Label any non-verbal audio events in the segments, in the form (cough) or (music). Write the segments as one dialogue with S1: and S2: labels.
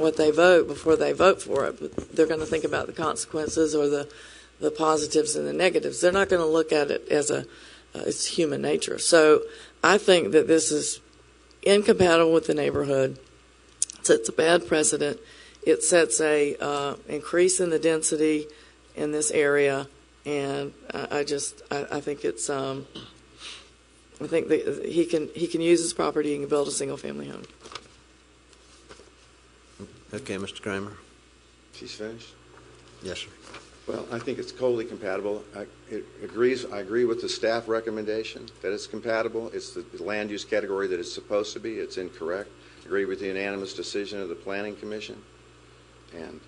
S1: what they vote before they vote for it. But they're going to think about the consequences or the, the positives and the negatives. They're not going to look at it as a uh, it's human nature. So I think that this is incompatible with the neighborhood. It's, it's a bad precedent. It sets a uh, increase in the density in this area, and I, I just I, I think it's um, I think that he can he can use his property and build a single family home.
S2: Okay, Mr. Kramer.
S3: She's finished.
S2: Yes, sir.
S3: Well, I think it's totally compatible. I, it agrees, I agree with the staff recommendation that it's compatible. It's the land use category that it's supposed to be. It's incorrect. Agree with the unanimous decision of the planning commission. And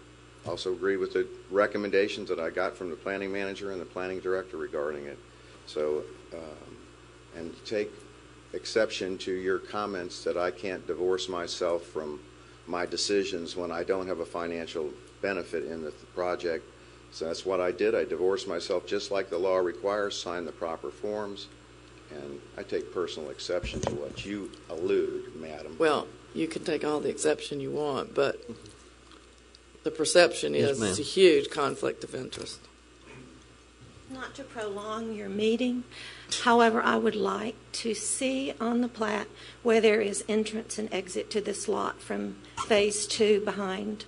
S3: also agree with the recommendations that I got from the planning manager and the planning director regarding it. So, um, and take exception to your comments that I can't divorce myself from my decisions when I don't have a financial benefit in the project. So that's what I did. I divorced myself just like the law requires, signed the proper forms, and I take personal exception to what you allude, madam.
S1: Well, you can take all the exception you want, but the perception
S2: Yes,
S1: is it's a
S2: ma'am.
S1: huge conflict of interest.
S4: Not to prolong your meeting, however, I would like to see on the plat where there is entrance and exit to this lot from Phase Two behind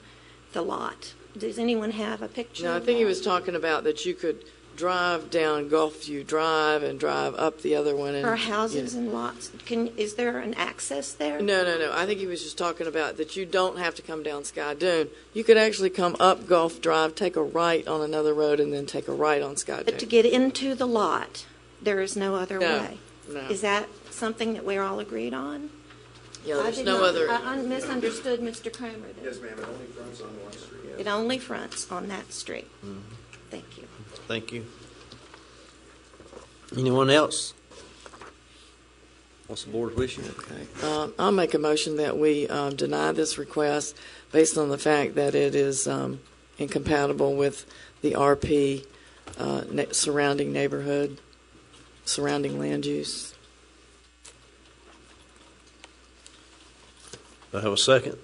S4: the lot. Does anyone have a picture?
S1: No, I
S4: of
S1: think he
S4: that?
S1: was talking about that you could drive down Gulfview Drive and drive up the other one. And,
S4: Or houses
S1: Yeah.
S4: and lots, can, is there an access there?
S1: No, no, no. I think he was just talking about that you don't have to come down Sky Dune. You could actually come up Gulf Drive, take a right on another road, and then take a right on Sky Dune.
S4: But to get into the lot, there is no other
S1: No,
S4: way?
S1: no.
S4: Is that something that we're all agreed on?
S1: yeah,
S4: I
S1: there's
S4: did
S1: no
S4: not-
S1: other.
S4: I I misunderstood Mr. Kramer then.
S3: ma'am, it only runs on one street.
S4: It only fronts on that street. Thank you.
S2: Thank you. Anyone else? What's the board's wishes?
S1: Okay. Um, I'll make a motion that we um, deny this request based on the fact that it is um, incompatible with the RP uh, ne- surrounding neighborhood, surrounding land use.
S2: Do I have a second?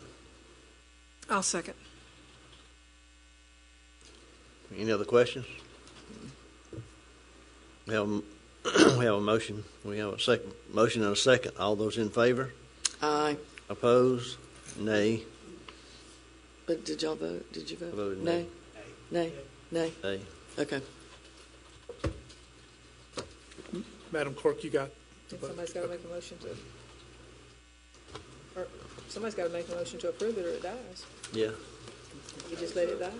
S5: I'll second.
S2: Any other questions? We have, a- (clears throat) we have a motion, we have a second, motion and a second. All those in favor?
S1: Aye.
S2: Opposed? Nay?
S1: But did y'all vote? Did you vote?
S2: I voted
S1: Nay? Nay? Nay?
S2: Nay.
S1: Okay.
S6: Madam Clerk, you got,
S5: Somebody's got to make a motion to, or somebody's got to make a motion to approve it or it dies.
S2: Yeah.
S5: You just let it die.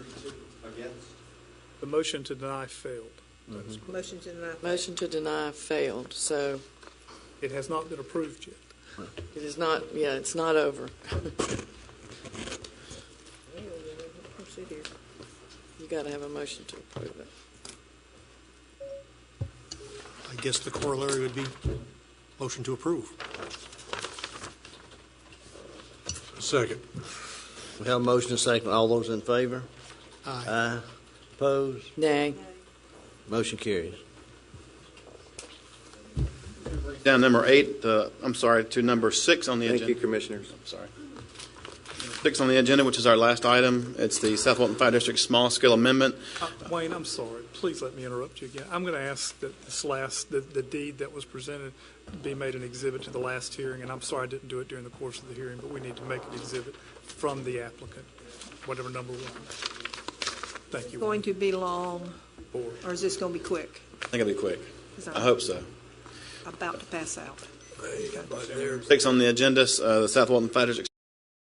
S6: the motion to deny failed.
S5: Motion to deny.
S1: Motion to deny failed, so
S6: It has not been approved yet.
S1: it is not, yeah, it's not over.
S5: We'll sit here.
S1: You got to have a motion to approve it.
S7: I guess the corollary would be motion to approve. Second.
S2: We have a motion and a second. All those in favor?
S7: Aye.
S2: Aye. Opposed?
S1: Nay.
S2: Motion carries.
S8: Down number eight, uh, I'm sorry, to number six on the
S3: Thank you,
S8: agenda.
S3: commissioners.
S8: Sorry. Six on the agenda, which is our last item. It's the South Walton Fire District Small Scale Amendment.
S6: Uh, Wayne, I'm sorry. Please let me interrupt you again. I'm going to ask that this last, that the deed that was presented be made an exhibit to the last hearing, and I'm sorry I didn't do it during the course of the hearing, but we need to make an exhibit from the applicant, whatever number one. Thank you.
S5: Going to be long,
S6: Wayne. Four.
S5: or is this going to be quick?
S8: I think it'll be quick.
S5: 'Cause
S8: I
S5: I'm
S8: hope so.
S5: About to pass out.
S8: Six on the agenda, uh, the South Walton Fire District